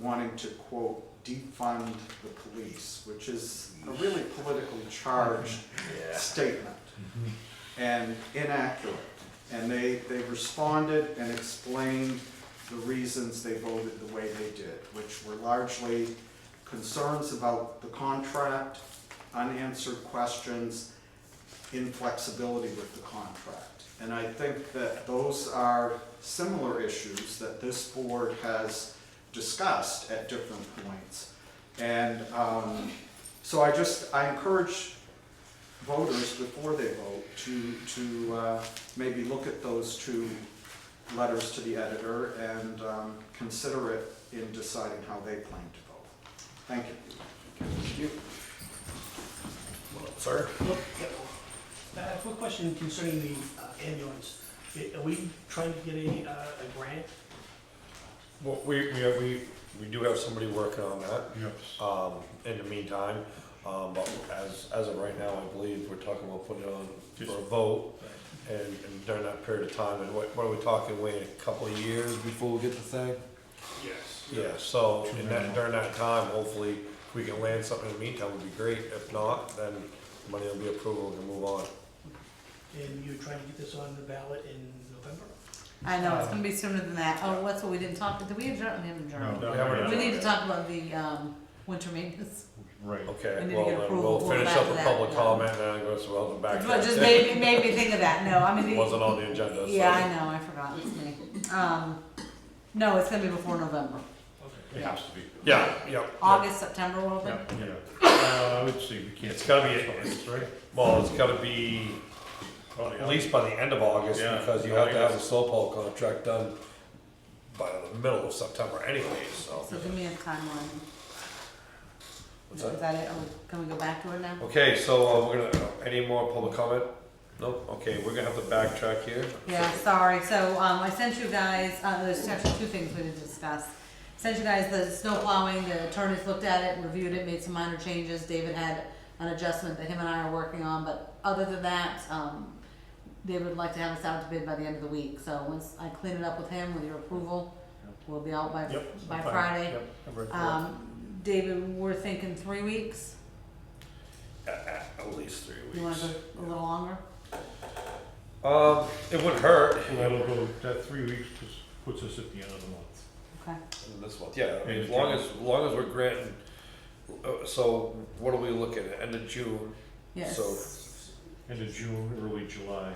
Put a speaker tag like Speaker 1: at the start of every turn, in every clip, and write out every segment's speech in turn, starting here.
Speaker 1: wanting to quote defund the police, which is a really politically charged statement and inaccurate. And they, they responded and explained the reasons they voted the way they did, which were largely concerns about the contract, unanswered questions, inflexibility with the contract. And I think that those are similar issues that this board has discussed at different points. And um, so I just, I encourage voters before they vote to, to uh, maybe look at those two letters to the editor and um, consider it in deciding how they plan to vote. Thank you.
Speaker 2: Well, Sir?
Speaker 3: Look, yeah, I have a Uh, quick question concerning the uh, ambulance. Are we trying to get a, uh, a grant?
Speaker 2: Well, we, we, we, we do have somebody working on that,
Speaker 4: Yes.
Speaker 2: um, in the meantime, um, but as, as of right now, I believe we're talking about putting it on for a vote. And, and during that period of time, and what, what are we talking, wait, a couple of years before we get the thing?
Speaker 4: Yes.
Speaker 2: Yeah, so, in that, during that time, hopefully, if we can land something in the meantime, would be great, if not, then money will be approved, we can move on.
Speaker 3: And you're trying to get this on the ballot in November?
Speaker 5: I know, it's gonna be sooner than that. Oh, what's what we didn't talk, did we adjourn, we haven't adjourned?
Speaker 4: No,
Speaker 2: We haven't
Speaker 5: We
Speaker 2: adjourned.
Speaker 5: need to talk about the, um, winter maintenance.
Speaker 4: Right.
Speaker 5: We
Speaker 2: Okay,
Speaker 5: need to
Speaker 2: well,
Speaker 5: get
Speaker 2: then
Speaker 5: approval
Speaker 2: we'll finish
Speaker 5: back
Speaker 2: up
Speaker 5: to
Speaker 2: with
Speaker 5: that,
Speaker 2: public
Speaker 5: yeah.
Speaker 2: comment, and then go, so welcome back to
Speaker 5: Well,
Speaker 2: that.
Speaker 5: just made, me- made me think of that, no, I mean.
Speaker 2: It wasn't on the agenda, so.
Speaker 5: Yeah, I know, I forgot, it's me. Um, no, it's gonna be before November.
Speaker 4: It has to be.
Speaker 2: Yeah, yeah.
Speaker 5: August, September, we'll open.
Speaker 4: Yeah, yeah. Uh, let's see, we can't.
Speaker 2: It's gotta be-
Speaker 4: August, right?
Speaker 2: Well, it's gotta be at least by the end of August,
Speaker 4: Yeah.
Speaker 2: because you have to have the slowpoke contract done by the middle of September anyways, so.
Speaker 5: So give me a timeline.
Speaker 2: What's
Speaker 5: Is
Speaker 2: that?
Speaker 5: that it, or can we go back to it now?
Speaker 2: Okay, so uh, we're gonna, any more public comment? Nope, okay, we're gonna have to backtrack here.
Speaker 5: Yeah, sorry, so, um, I sent you guys, uh, there's actually two things we need to discuss. Sent you guys the snow plowing, the attorneys looked at it, reviewed it, made some minor changes, David had an adjustment that him and I are working on, but other than that, um, they would like to have us out to bid by the end of the week, so once I clean it up with him, with your approval, we'll be out by,
Speaker 2: Yep,
Speaker 5: by
Speaker 2: fine,
Speaker 5: Friday.
Speaker 2: yep, I'm ready for it.
Speaker 5: Um, David, we're thinking three weeks,
Speaker 2: At, at- at least three
Speaker 5: you wanna
Speaker 2: weeks.
Speaker 5: go a little longer?
Speaker 2: Um, it wouldn't hurt.
Speaker 4: That'll go, that three weeks just puts us at the end of the month.
Speaker 5: Okay,
Speaker 2: This month, yeah, I mean,
Speaker 4: End
Speaker 2: as
Speaker 4: of
Speaker 2: long as,
Speaker 4: June.
Speaker 2: as long as we're granting, uh, so what are we looking at, end of June?
Speaker 5: yes,
Speaker 2: So-
Speaker 4: End of June, early July.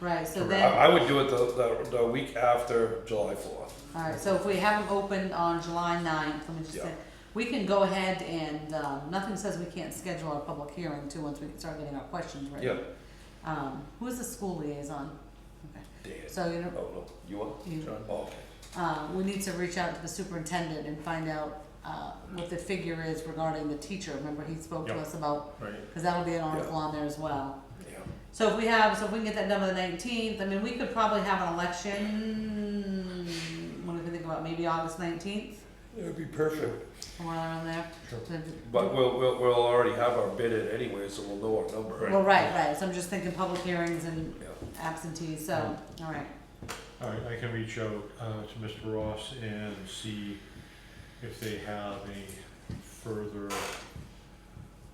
Speaker 5: right, so
Speaker 2: I,
Speaker 5: then.
Speaker 2: I would do it the, the, the week after July fourth.
Speaker 5: Alright, so if we have them open on July ninth, let me just
Speaker 2: Yeah.
Speaker 5: say, we can go ahead and, um, nothing says we can't schedule our public hearing too, once we start getting our questions ready.
Speaker 2: Yeah.
Speaker 5: Um, who's the school liaison?
Speaker 2: Dan.
Speaker 5: So, you
Speaker 2: Oh,
Speaker 5: know,
Speaker 2: no, you are?
Speaker 5: You.
Speaker 2: John? Oh, okay.
Speaker 5: uh, we need to reach out to the superintendent and find out, uh, what the figure is regarding the teacher, remember he spoke to
Speaker 4: Yeah.
Speaker 5: us about,
Speaker 4: Right.
Speaker 5: cause that'll be an article on there as well. So if we have, so if we can get that done by the nineteenth, I mean, we could probably have an election, what do we think about, maybe August nineteenth,
Speaker 2: Yeah. It'd be perfect.
Speaker 5: somewhere around there? To-
Speaker 2: But we'll, we'll, we'll already have our bid in anyway, so we'll know our number.
Speaker 4: Right.
Speaker 5: Well, right, right, so I'm just thinking public hearings and
Speaker 2: Yeah.
Speaker 5: absentees, so, all right,
Speaker 4: All right, I can reach out, uh, to Mr. Ross and see if they have any further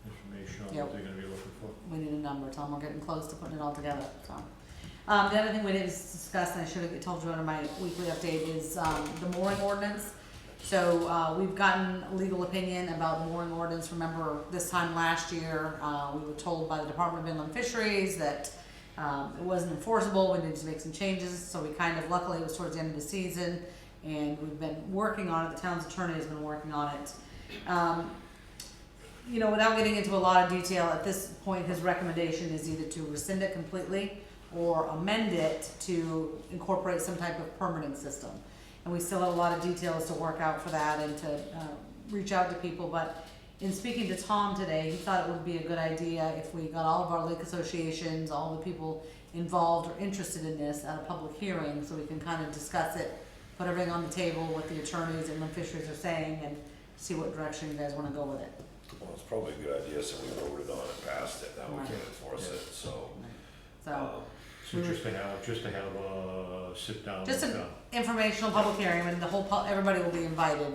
Speaker 4: information on
Speaker 5: Yeah.
Speaker 4: what they're gonna be looking for.
Speaker 5: we need a number, Tom, we're getting close to putting it all together, so. Um, the other thing we didn't discuss, and I should have told you under my weekly update, is, um, the mooring ordinance. So, uh, we've gotten legal opinion about the mooring ordinance, remember this time last year, uh, we were told by the Department of Inland Fisheries that, um, it wasn't enforceable, we needed to make some changes, so we kind of, luckily, it was towards the end of the season, and we've been working on it, the town's attorney has been working on it. Um, you know, without getting into a lot of detail, at this point, his recommendation is either to rescind it completely or amend it to incorporate some type of permitting system. And we still have a lot of details to work out for that and to, uh, reach out to people, but in speaking to Tom today, he thought it would be a good idea if we got all of our lake associations, all the people involved or interested in this at a public hearing, so we can kind of discuss it, put everything on the table, what the attorneys and the fishers are saying, and see what direction you guys wanna go with it.
Speaker 2: Well, it's probably a good idea, so we voted on it, passed it, now we
Speaker 5: Right.
Speaker 2: can enforce it, so.
Speaker 5: So,
Speaker 2: um,
Speaker 4: So just to have, just to have a sit down
Speaker 5: Mm-hmm. Just
Speaker 4: with
Speaker 5: an-
Speaker 4: them.
Speaker 5: informational public hearing, and the whole, pub- everybody will be invited,